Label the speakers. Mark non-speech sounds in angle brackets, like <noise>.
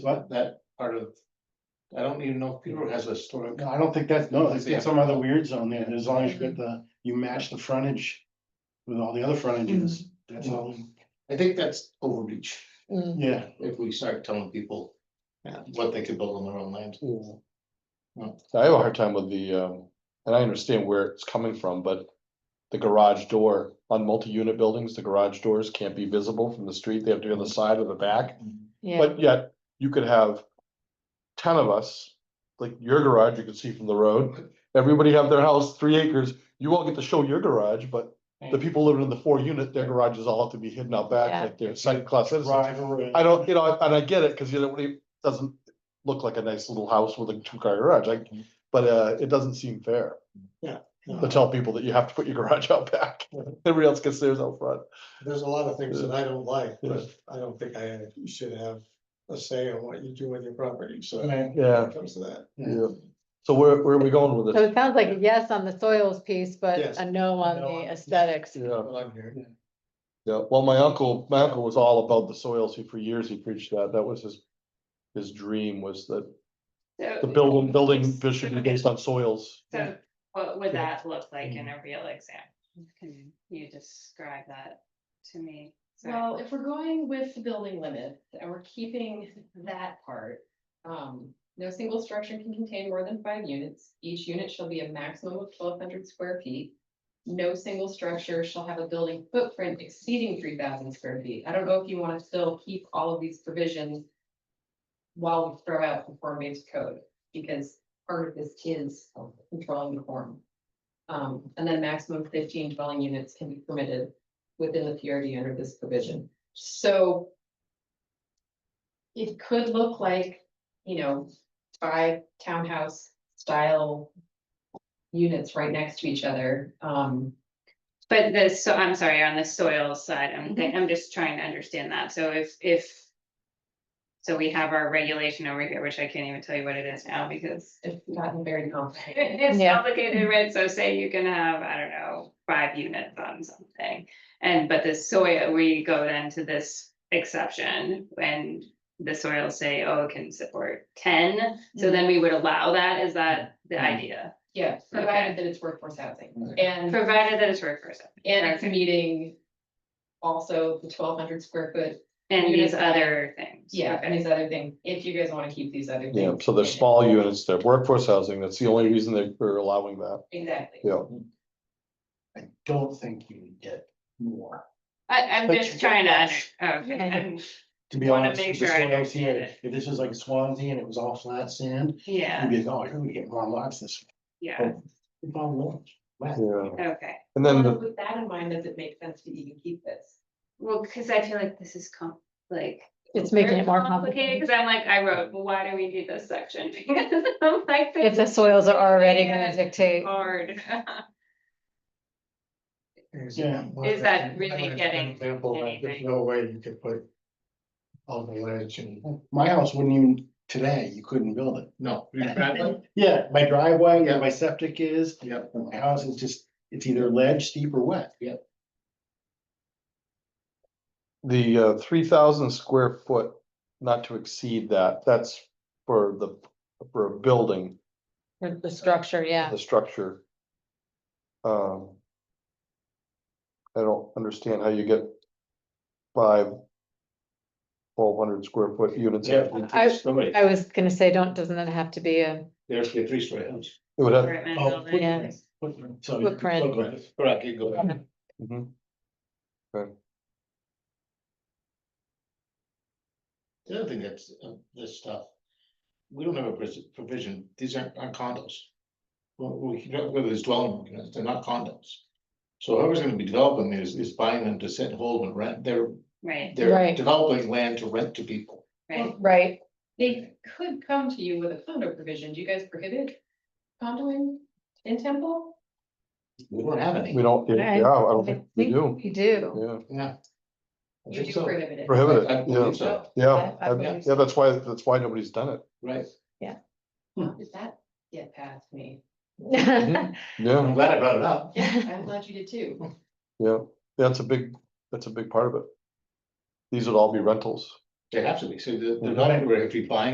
Speaker 1: But that part of, I don't even know if Peterborough has a historic.
Speaker 2: No, I don't think that's, no, it's
Speaker 1: Yeah.
Speaker 2: it's some other weird zone there, as long as you get the, you match the frontage with all the other frontages, that's all,
Speaker 1: I think that's overreach
Speaker 3: Mm,
Speaker 2: yeah.
Speaker 1: if we start telling people what they could build on their own land.
Speaker 4: I have a hard time with the, um, and I understand where it's coming from, but the garage door on multi-unit buildings, the garage doors can't be visible from the street. They have to be on the side or the back.
Speaker 3: Mm-hmm. Yeah,
Speaker 4: But yet you could have ten of us, like your garage, you could see from the road. Everybody have their house, three acres. You all get to show your garage, but the people living in the four unit, their garages all have to be hidden out
Speaker 3: Yeah.
Speaker 4: back like they're second class citizens.
Speaker 2: Driver.
Speaker 4: I don't, you know, and I get it, cause you know, it doesn't look like a nice little house with a two car garage, like, but uh, it doesn't seem fair.
Speaker 5: Yeah.
Speaker 4: To tell people that you have to put your garage out <laughs> back, everybody else gets theirs out front.
Speaker 5: There's a lot of things that I don't like,
Speaker 4: Yeah.
Speaker 5: but I don't think I should have a say on what you do with your property, so. when
Speaker 2: Right.
Speaker 4: Yeah,
Speaker 5: it Comes to that.
Speaker 4: yeah. So where, where are we going with
Speaker 3: so
Speaker 4: this?
Speaker 3: it sounds like a yes on the soils piece, but
Speaker 5: Yes.
Speaker 3: a no on
Speaker 5: No on-
Speaker 3: the aesthetics.
Speaker 4: Yeah,
Speaker 5: Well, I'm here.
Speaker 4: yeah. Well, my uncle, my uncle was all about the soils. He, for years, he preached that. That was his, his dream was that the building, building should be based on soils.
Speaker 6: So what would
Speaker 4: Yeah. Mm.
Speaker 6: that look like in a real example? Can you describe that to me? So
Speaker 7: Well, if we're going with the building limit and we're keeping that part. Um, no single structure can contain more than five units. Each unit shall be a maximum of twelve hundred square feet. No single structure shall have a building footprint exceeding three thousand square feet. I don't know if you want to still keep all of these provisions. While we throw out the form-based code, because part of this is controlling the form. Um, and then maximum fifteen dwelling units can be permitted within the PRD under this provision. So it could look like, you know, five townhouse style units right next to each other. Um,
Speaker 6: But the, so I'm sorry, on the soil side, I'm, thi- I'm just trying to understand that. So if, if. So we have our regulation over here, which I can't even tell you what it is now because
Speaker 7: it's gotten very complicated.
Speaker 4: <laughs>
Speaker 6: It's
Speaker 3: Yeah.
Speaker 6: complicated, right? So say you can have, I don't know, five units on something. And but the soil, we go then to this exception and the soil say, oh, it can support ten. So then we would allow that. Is that the
Speaker 1: Mm.
Speaker 6: idea?
Speaker 7: Yeah,
Speaker 6: Okay.
Speaker 7: provided that it's workforce housing
Speaker 1: Right.
Speaker 7: and, and
Speaker 6: Provided that it's workforce.
Speaker 7: it's
Speaker 6: Okay.
Speaker 7: meeting also the twelve hundred square foot.
Speaker 6: And
Speaker 7: units
Speaker 6: these other things.
Speaker 7: Yeah, and
Speaker 6: Okay.
Speaker 7: these other things, if you guys want to keep these other things.
Speaker 4: Yeah, so they're
Speaker 7: in it.
Speaker 4: small units, they're workforce housing. That's the only reason they- they're allowing that.
Speaker 7: Exactly.
Speaker 4: Yeah.
Speaker 1: I don't think you would get more.
Speaker 6: I, I'm
Speaker 2: But
Speaker 6: just trying to, under- okay,
Speaker 3: Yeah.
Speaker 6: I'm-
Speaker 2: To be
Speaker 6: wanna
Speaker 2: honest,
Speaker 6: make
Speaker 2: if this
Speaker 6: sure I
Speaker 2: one out here,
Speaker 6: understand
Speaker 2: if this was like Swansea and it was all flat sand, you'd
Speaker 6: yeah,
Speaker 2: be like, oh, you're gonna get more lots this.
Speaker 6: yeah,
Speaker 2: It's all lots. Wow.
Speaker 4: Yeah.
Speaker 6: okay.
Speaker 4: And then
Speaker 7: Well,
Speaker 4: the,
Speaker 7: With that in mind, does it make sense to even keep this?
Speaker 6: Well, because I feel like this is com- like.
Speaker 3: It's making
Speaker 6: very
Speaker 3: it more complicated.
Speaker 6: Because I'm like, I wrote, well, why do we do this section? <laughs> Because I'm like.
Speaker 3: If the
Speaker 6: this is
Speaker 3: soils are already gonna
Speaker 6: Yeah.
Speaker 3: dictate,
Speaker 6: Hard.
Speaker 2: Yeah.
Speaker 6: Is that really
Speaker 5: I think it's an
Speaker 6: getting
Speaker 5: Example, that there's
Speaker 6: anything?
Speaker 5: no way you could put all the ledge and.
Speaker 2: My house wouldn't even, today, you couldn't build it.
Speaker 1: No. you're right.
Speaker 2: <laughs> Yeah, my driveway,
Speaker 1: Yeah.
Speaker 2: where my septic is,
Speaker 1: Yep.
Speaker 2: my house is just, it's either ledge, steep or wet.
Speaker 4: the uh, three thousand square foot, not to exceed that, that's for the, for a building,
Speaker 3: for the structure, yeah.
Speaker 4: the structure. Um. I don't understand how you get five. Twelve hundred square foot units.
Speaker 1: Yeah,
Speaker 4: It
Speaker 1: the three-story.
Speaker 3: I was gonna say, don't, doesn't that have to be a,
Speaker 1: There's the three story house.
Speaker 4: would have,
Speaker 6: apartment
Speaker 2: Oh,
Speaker 6: building.
Speaker 3: yeah,
Speaker 2: Footprint, so.
Speaker 3: Footprint.
Speaker 2: footprint.
Speaker 1: Correct, you go. back.
Speaker 4: mhm.
Speaker 1: The other thing that's, uh, this stuff, we don't have a pres- provision, these aren't aren't condos. Well, we can, whether it's dwelling, units, they're not condos. So whoever's gonna be developing these is buying them to sit, and hold and rent, they're,
Speaker 6: Right,
Speaker 1: they're
Speaker 3: Right.
Speaker 1: developing land to rent to people.
Speaker 6: right.
Speaker 3: right?
Speaker 7: They could come to you with a condo provision. Do you guys prohibit condoing in Temple?
Speaker 1: We don't have any.
Speaker 4: we don't, yeah,
Speaker 3: Right.
Speaker 4: I don't think we do,
Speaker 3: We do.
Speaker 4: yeah,
Speaker 1: Yeah. I
Speaker 7: You
Speaker 1: think
Speaker 7: do
Speaker 1: so.
Speaker 7: prohibit it. Oh,
Speaker 4: prohibit
Speaker 1: I
Speaker 4: it, yeah,
Speaker 1: believe so,
Speaker 4: yeah,
Speaker 3: I- I
Speaker 4: I-
Speaker 3: believe
Speaker 4: yeah, that's why, that's why nobody's done it,
Speaker 1: right.
Speaker 7: How Did that get past me?
Speaker 1: I'm
Speaker 4: yeah,
Speaker 1: glad I brought it up.
Speaker 7: Yeah, I'm glad you did too.
Speaker 4: yeah, that's a big, that's a big part of it. These would all be rentals,
Speaker 1: They have to be, so they're, they're not anywhere if you're buying